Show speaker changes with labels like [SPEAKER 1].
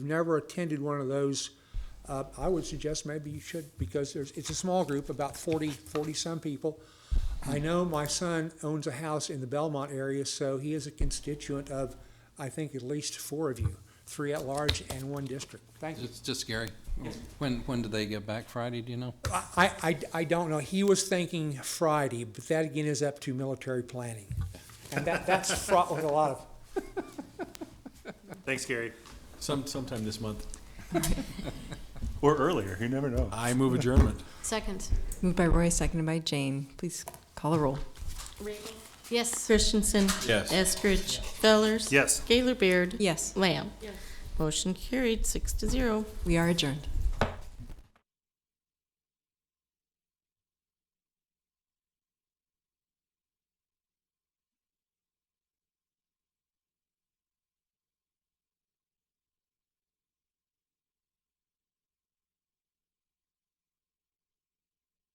[SPEAKER 1] never attended one of those, uh, I would suggest maybe you should, because there's, it's a small group, about 40, 40-some people. I know my son owns a house in the Belmont area, so he is a constituent of, I think, at least four of you, three at large and one district. Thank you.
[SPEAKER 2] It's just scary. When, when do they get back Friday, do you know?
[SPEAKER 1] I, I, I don't know. He was thinking Friday, but that again is up to military planning. And that, that's fraught with a lot of,
[SPEAKER 3] Thanks, Gary.
[SPEAKER 4] Some, sometime this month.
[SPEAKER 3] Or earlier, you never know.
[SPEAKER 4] I move adjournment.
[SPEAKER 5] Second.
[SPEAKER 6] Moved by Roy, seconded by Jane. Please call a roll.
[SPEAKER 5] Reagan? Yes.
[SPEAKER 7] Christensen.
[SPEAKER 4] Yes.
[SPEAKER 7] Eskridge. Fellers.
[SPEAKER 3] Yes.
[SPEAKER 7] Gaylor Baird.
[SPEAKER 6] Yes,
[SPEAKER 7] Lamb. Motion carried, six to zero.
[SPEAKER 6] we are adjourned.